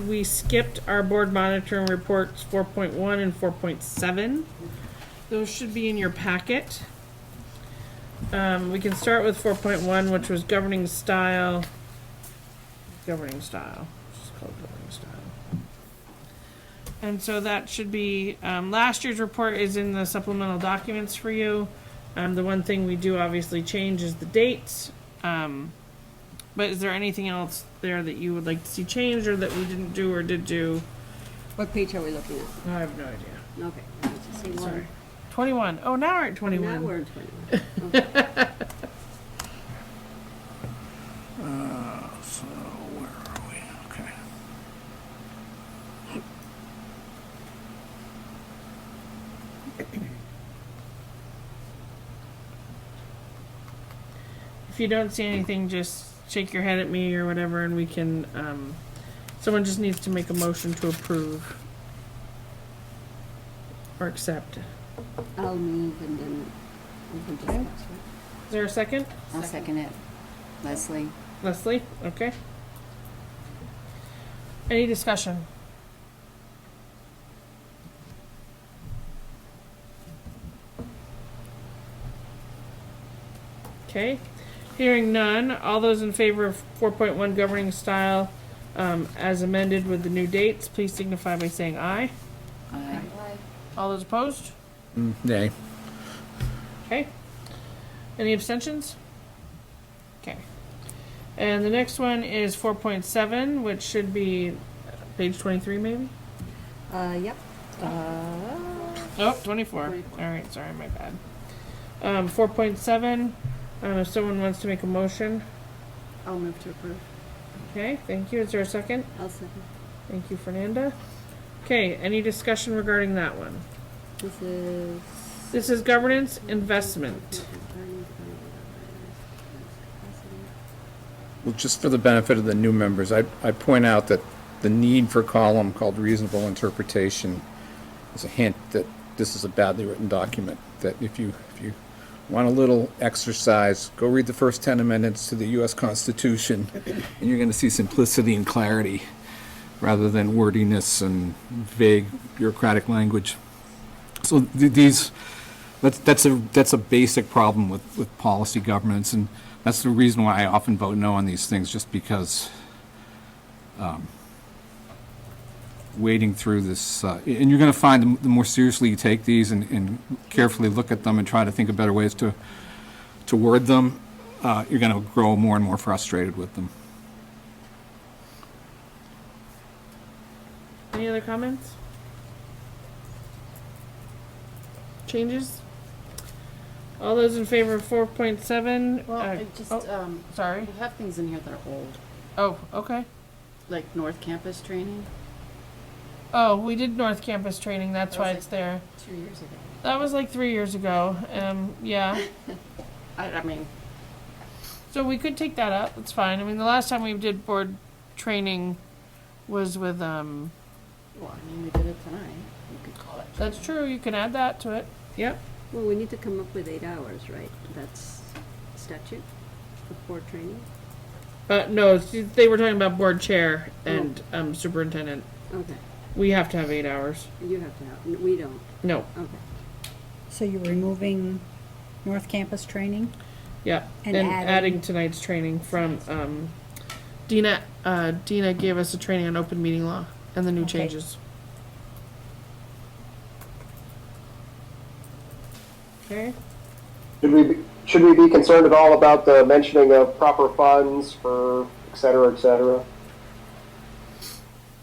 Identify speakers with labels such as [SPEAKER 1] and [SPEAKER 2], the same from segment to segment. [SPEAKER 1] we skipped our board monitoring reports four point one and four point seven. Those should be in your packet. Um, we can start with four point one, which was governing style. Governing style, just called governing style. And so that should be, um, last year's report is in the supplemental documents for you. Um, the one thing we do obviously change is the dates. Um, but is there anything else there that you would like to see changed or that we didn't do or did do?
[SPEAKER 2] What page are we looking at?
[SPEAKER 1] I have no idea.
[SPEAKER 2] Okay. I was just saying, well,
[SPEAKER 1] Sorry. 21. Oh, now we're at
[SPEAKER 2] Now
[SPEAKER 1] 21.
[SPEAKER 2] we're in twenty-one.
[SPEAKER 3] So where are we? Okay.
[SPEAKER 1] if you don't see anything, just shake your head at me or whatever, and we can. Um, someone just needs to make a motion to approve or accept. Is
[SPEAKER 2] I'll move and then we can discuss. right?
[SPEAKER 1] there a second?
[SPEAKER 4] I'll second it. Leslie?
[SPEAKER 1] Leslie? Okay. Any discussion? Okay, hearing none, all those in favor of four point one governing style, um, as amended with the new dates, please signify by saying aye.
[SPEAKER 4] Aye.
[SPEAKER 1] All those opposed?
[SPEAKER 3] Nay.
[SPEAKER 1] Okay. Any abstentions? Okay. And the next one is four point seven, which should be uh, page twenty-three maybe?
[SPEAKER 2] Uh, yep. Uh,
[SPEAKER 1] Oh, 24. All right, sorry, my bad. Um, four point seven, um, if someone wants to make a motion,
[SPEAKER 2] I'll move to approve.
[SPEAKER 1] okay, thank you. Is there a second?
[SPEAKER 2] I'll second.
[SPEAKER 1] Thank you, Fernanda. Okay, any discussion regarding that one?
[SPEAKER 2] This is.
[SPEAKER 1] This is governance investment.
[SPEAKER 3] Well, just for the benefit of the new members, I, I point out that the need for column called reasonable interpretation is a hint that this is a badly written document, that if you, if you want a little exercise, go read the first ten amendments to the US Constitution, and you're gonna see simplicity and clarity, rather than wordiness and vague bureaucratic language. So th- these, that's, that's a, that's a basic problem with, with policy governance, and that's the reason why I often vote no on these things, just because um, wading through this, uh, and you're gonna find the m- the more seriously you take these and, and carefully look at them and try to think of better ways to, to word them, uh, you're gonna grow more and more frustrated with them.
[SPEAKER 1] Any other comments? Changes? All those in favor of four point seven? uh, oh,
[SPEAKER 4] Well, I just, um,
[SPEAKER 1] Sorry.
[SPEAKER 4] we have things in here that are old,
[SPEAKER 1] Oh, okay.
[SPEAKER 4] like North Campus training,
[SPEAKER 1] Oh, we did North Campus training. That's
[SPEAKER 4] That was
[SPEAKER 1] why
[SPEAKER 4] like-
[SPEAKER 1] it's there.
[SPEAKER 4] two years ago.
[SPEAKER 1] That was like three years ago. Um, yeah.
[SPEAKER 4] I, I mean,
[SPEAKER 1] So we could take that up. It's fine. I mean, the last time we did board training was with um.
[SPEAKER 4] well, I mean, we did it tonight, you could call it.
[SPEAKER 1] That's true. You can add that to it. Yep.
[SPEAKER 2] Well, we need to come up with eight hours, right? That's statute for training.
[SPEAKER 1] Uh, no, they were talking about board chair and um superintendent.
[SPEAKER 2] Okay,
[SPEAKER 1] We have to have eight hours.
[SPEAKER 2] you have to have, we don't,
[SPEAKER 1] No.
[SPEAKER 2] okay.
[SPEAKER 5] So you're removing North Campus training?
[SPEAKER 1] Yeah.
[SPEAKER 5] And adding-
[SPEAKER 1] tonight's training from um. Dina, uh, Dina gave us a training on open meeting law and the new
[SPEAKER 5] Okay.
[SPEAKER 1] changes. Okay.
[SPEAKER 6] Should we, be- should we be concerned at all about the mentioning of proper funds for et cetera, et cetera?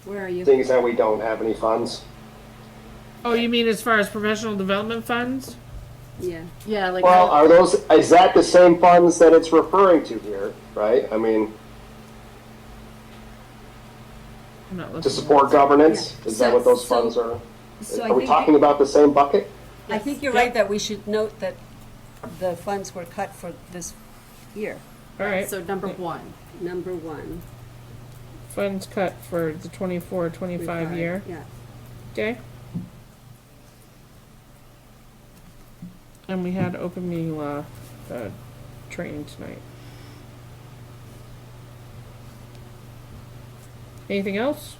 [SPEAKER 2] Where are you?
[SPEAKER 6] Seeing as that we don't have any funds.
[SPEAKER 1] Oh, you mean as far as professional development funds?
[SPEAKER 2] Yeah,
[SPEAKER 4] Yeah, like,
[SPEAKER 6] Well,
[SPEAKER 4] I
[SPEAKER 6] are those, is that the same funds that it's referring to here, right? I mean,
[SPEAKER 1] I'm not
[SPEAKER 6] to
[SPEAKER 1] looking.
[SPEAKER 6] support governance? Is that what those
[SPEAKER 5] So-
[SPEAKER 6] funds are?
[SPEAKER 5] So
[SPEAKER 6] Are
[SPEAKER 5] I
[SPEAKER 6] we
[SPEAKER 5] think,
[SPEAKER 6] talking about the same bucket?
[SPEAKER 5] I think you're right that we should note that the funds were cut for this year.
[SPEAKER 1] All right,
[SPEAKER 4] so number one,
[SPEAKER 2] number one.
[SPEAKER 1] funds cut for the 24, 25 year.
[SPEAKER 2] Yeah,
[SPEAKER 1] Okay. And we had open meeting law uh, training tonight. Anything else?